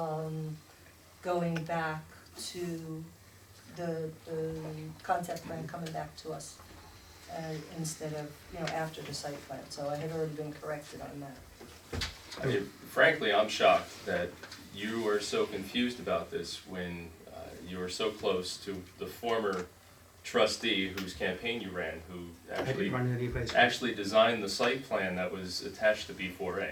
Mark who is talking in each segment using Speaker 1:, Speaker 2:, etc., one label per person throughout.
Speaker 1: um, going back to the, the concept plan coming back to us uh, instead of, you know, after the site plan, so I had already been corrected on that.
Speaker 2: I mean, frankly, I'm shocked that you are so confused about this when uh, you were so close to the former trustee whose campaign you ran, who
Speaker 3: I
Speaker 2: actually
Speaker 3: didn't run any place.
Speaker 2: actually designed the site plan that was attached to B four A.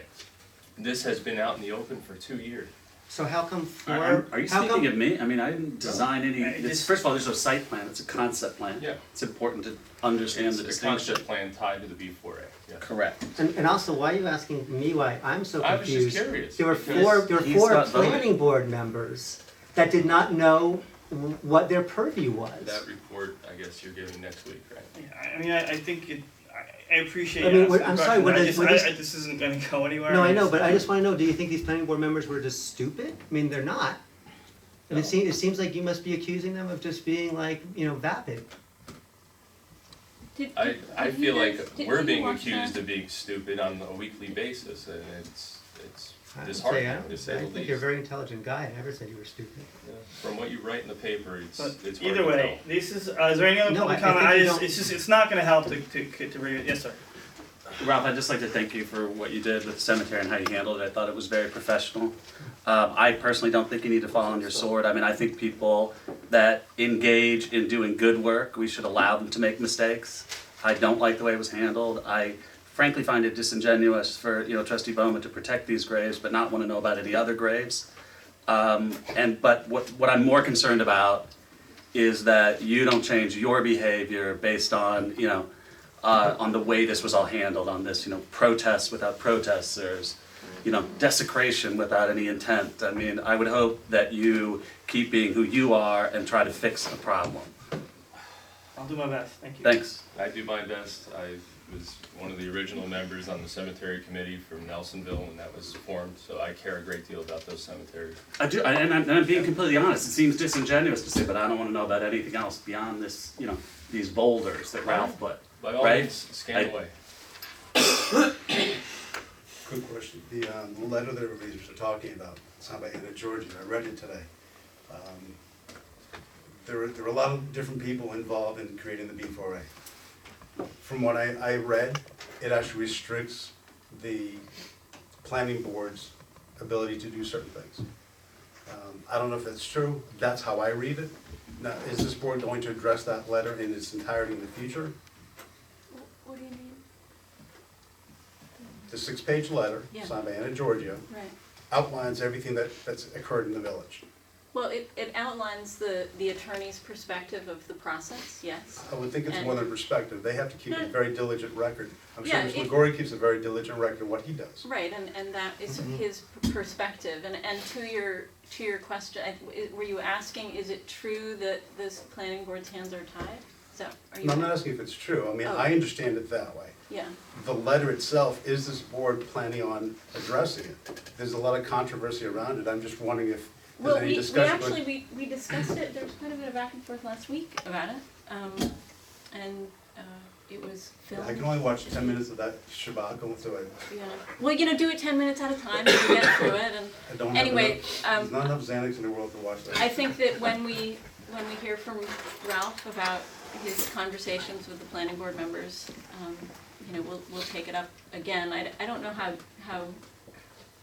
Speaker 2: This has been out in the open for two years.
Speaker 3: So how come four?
Speaker 4: Are- Are, are you
Speaker 3: how
Speaker 4: speaking
Speaker 3: come,
Speaker 4: of me? I mean, I didn't design any,
Speaker 2: Uh,
Speaker 4: it's,
Speaker 2: it's-
Speaker 4: first of all, there's no site plan, it's a concept plan.
Speaker 2: Yeah.
Speaker 4: It's important to understand the
Speaker 2: It's a
Speaker 4: distinction.
Speaker 2: concept plan tied to the B four A, yeah.
Speaker 4: Correct.
Speaker 3: And, and also, why are you asking me why I'm so
Speaker 2: I was just
Speaker 3: confused?
Speaker 2: curious,
Speaker 3: There were
Speaker 2: because
Speaker 3: four. There were
Speaker 4: he's
Speaker 3: four
Speaker 4: not voting.
Speaker 3: planning board members that did not know w- what their purview was.
Speaker 2: That report, I guess you're giving next week, right?
Speaker 5: I I mean, I, I think it, I, I appreciate
Speaker 3: I
Speaker 5: you
Speaker 3: mean,
Speaker 5: asking
Speaker 3: what-
Speaker 5: the
Speaker 3: I'm sorry,
Speaker 5: question,
Speaker 3: what
Speaker 5: I
Speaker 3: is-
Speaker 5: just,
Speaker 3: what
Speaker 5: I,
Speaker 3: is-
Speaker 5: I- this isn't gonna go anywhere.
Speaker 3: no, I know, but I just want to know: Do you think these planning board members were just stupid? I mean, they're not. And it,
Speaker 2: No.
Speaker 3: seems, it seems like you must be accusing them of just being like, you know, vapid.
Speaker 6: Did-
Speaker 2: I,
Speaker 6: did-
Speaker 2: I
Speaker 6: did you
Speaker 2: feel
Speaker 6: guys-
Speaker 2: like
Speaker 6: did
Speaker 2: we're
Speaker 6: you
Speaker 2: being
Speaker 6: watch
Speaker 2: accused
Speaker 6: that?
Speaker 2: of being stupid on a weekly basis, and it's, it's
Speaker 3: I would say, I,
Speaker 2: disheartening,
Speaker 3: don't-
Speaker 2: to say the
Speaker 3: I
Speaker 2: least.
Speaker 3: think you're a very intelligent guy. I never said you were stupid.
Speaker 2: Yeah, From what you write in the paper, it's,
Speaker 5: But
Speaker 2: it's hard to
Speaker 5: either
Speaker 2: tell.
Speaker 5: way, this is, uh, is there any other
Speaker 3: No,
Speaker 5: public
Speaker 3: I- I
Speaker 5: comment?
Speaker 3: think
Speaker 5: I
Speaker 3: you
Speaker 5: just,
Speaker 3: don't-
Speaker 5: it's just, it's not gonna help to, to, to, re- yes, sir.
Speaker 4: Ralph, I'd just like to thank you for what you did with the cemetery and how you handled it. I thought it was very professional. Um, I personally don't think you need to fall on your sword. I mean, I think people that engage in doing good work, we should allow them to make mistakes. I don't like the way it was handled. I frankly find it disingenuous for, you know, trustee Bowman to protect these graves but not want to know about any other graves. Um, and, but what, what I'm more concerned about is that you don't change your behavior based on, you know, uh, on the way this was all handled, on this, you know, protests without protesters, you know, desecration without any intent. I mean, I would hope that you keep being who you are and try to fix the problem.
Speaker 5: I'll do my best, thank you.
Speaker 4: Thanks.
Speaker 2: I do my best. I was one of the original members on the cemetery committee from Nelsonville when that was formed, so I care a great deal about those cemeteries.
Speaker 4: I do, I- and I'm, and I'm being completely honest, it seems disingenuous to say, but I don't wanna know about anything else beyond this, you know, these boulders that Ralph put.
Speaker 2: By all
Speaker 4: Right.
Speaker 2: means, scan
Speaker 4: I-
Speaker 2: away.
Speaker 7: Quick question, the, um, the letter that everybody's been talking about, it's not by Anna Georgian, I read it today. Um, There are, there are a lot of different people involved in creating the B four A. From what I, I read, it actually restricts the planning board's ability to do certain things. Um, I don't know if that's true, that's how I read it. Now, is this board going to address that letter in its entirety in the future?
Speaker 6: Wh- What do you mean?
Speaker 7: The six-page letter,
Speaker 6: Yeah.
Speaker 7: signed by Anna Giorgio,
Speaker 6: Right.
Speaker 7: outlines everything that, that's occurred in the village.
Speaker 6: Well, it, it outlines the, the attorney's perspective of the process, yes.
Speaker 7: I would think it's more than perspective, they have to keep a very diligent record. I'm sure
Speaker 6: Hmm. Yeah,
Speaker 7: Mr.
Speaker 6: it-
Speaker 7: McGory keeps a very diligent record of what he does.
Speaker 6: Right, and, and that is
Speaker 7: Mm-hmm.
Speaker 6: his p- perspective, and, and to your, to your question, I- w- were you asking, is it true that this planning board's hands are tied? So, are you?
Speaker 7: And I'm not asking if it's true, I mean,
Speaker 6: Oh.
Speaker 7: I understand it that way.
Speaker 6: Yeah,
Speaker 7: The letter itself, is this board planning on addressing it? There's a lot of controversy around it, I'm just wondering if there's
Speaker 6: well,
Speaker 7: any
Speaker 6: we, we
Speaker 7: discussion.
Speaker 6: actually, we, we discussed it, there was quite a bit of back and forth last week about it, um, and, uh, it was filmed.
Speaker 7: I can only watch ten minutes of that shabak, going through it,
Speaker 6: Yeah, well, you know, do it ten minutes at a time, and you get through it, and
Speaker 7: I don't have
Speaker 6: Anyway,
Speaker 7: enough,
Speaker 6: um,
Speaker 7: there's not enough Xanax in the world to watch that.
Speaker 6: I think that when we, when we hear from Ralph about his conversations with the planning board members, um, you know, we'll, we'll take it up again. I, I don't know how, how,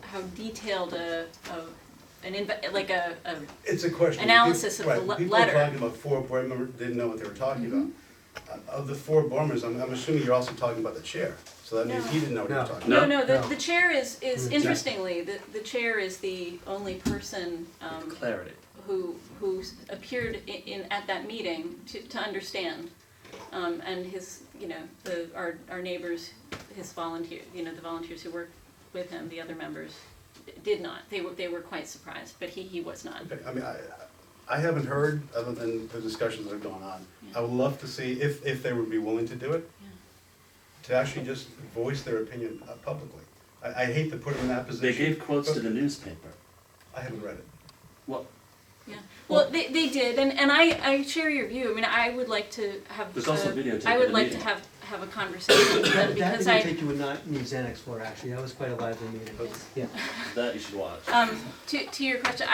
Speaker 6: how detailed a, a, an inv- like a, a,
Speaker 7: It's a question.
Speaker 6: Analysis of
Speaker 7: People-
Speaker 6: the
Speaker 7: right,
Speaker 6: le-
Speaker 7: people are
Speaker 6: letter. Mm-hmm.
Speaker 7: talking about four board members, didn't know what they were talking about. Uh, Of the four board members, I'm, I'm assuming you're also talking about the chair, so that means
Speaker 6: No.
Speaker 7: he didn't know what he was
Speaker 3: No.
Speaker 7: talking about.
Speaker 6: no, no, the,
Speaker 3: No.
Speaker 6: the chair is, is,
Speaker 3: Mm, yeah.
Speaker 6: interestingly, the, the chair is the only person, um,
Speaker 4: Clarity.
Speaker 6: who who s- appeared i- in at that meeting to, to understand, um, and his you know the our our neighbors, his volunteer you know the volunteers who worked with him, the other members, d- did not. They were they were quite surprised, but he he was not.
Speaker 7: Okay, I mean, I, I haven't heard, other than the discussions that have gone on. I would love to see if, if they would be willing to do it,
Speaker 6: Yeah.
Speaker 7: to actually just voice their opinion uh, publicly. I, I hate to put them in that
Speaker 4: They
Speaker 7: position.
Speaker 4: gave quotes to
Speaker 7: but
Speaker 4: the newspaper.
Speaker 7: I haven't read it.
Speaker 4: Well,
Speaker 6: Yeah. Well, they, they did, and, and I, I share your view. I mean, I would like to have.
Speaker 4: There's also
Speaker 6: a-
Speaker 4: videotape
Speaker 6: I
Speaker 4: of
Speaker 6: would
Speaker 4: the
Speaker 6: like to
Speaker 4: meeting.
Speaker 6: have have a conversation with them
Speaker 3: That, that
Speaker 6: because
Speaker 3: didn't
Speaker 6: I.
Speaker 3: take you would not need Xanax for actually. That was quite a lively meeting.
Speaker 7: But-
Speaker 3: Yeah.
Speaker 4: that you should watch.
Speaker 6: Um, to, to your question,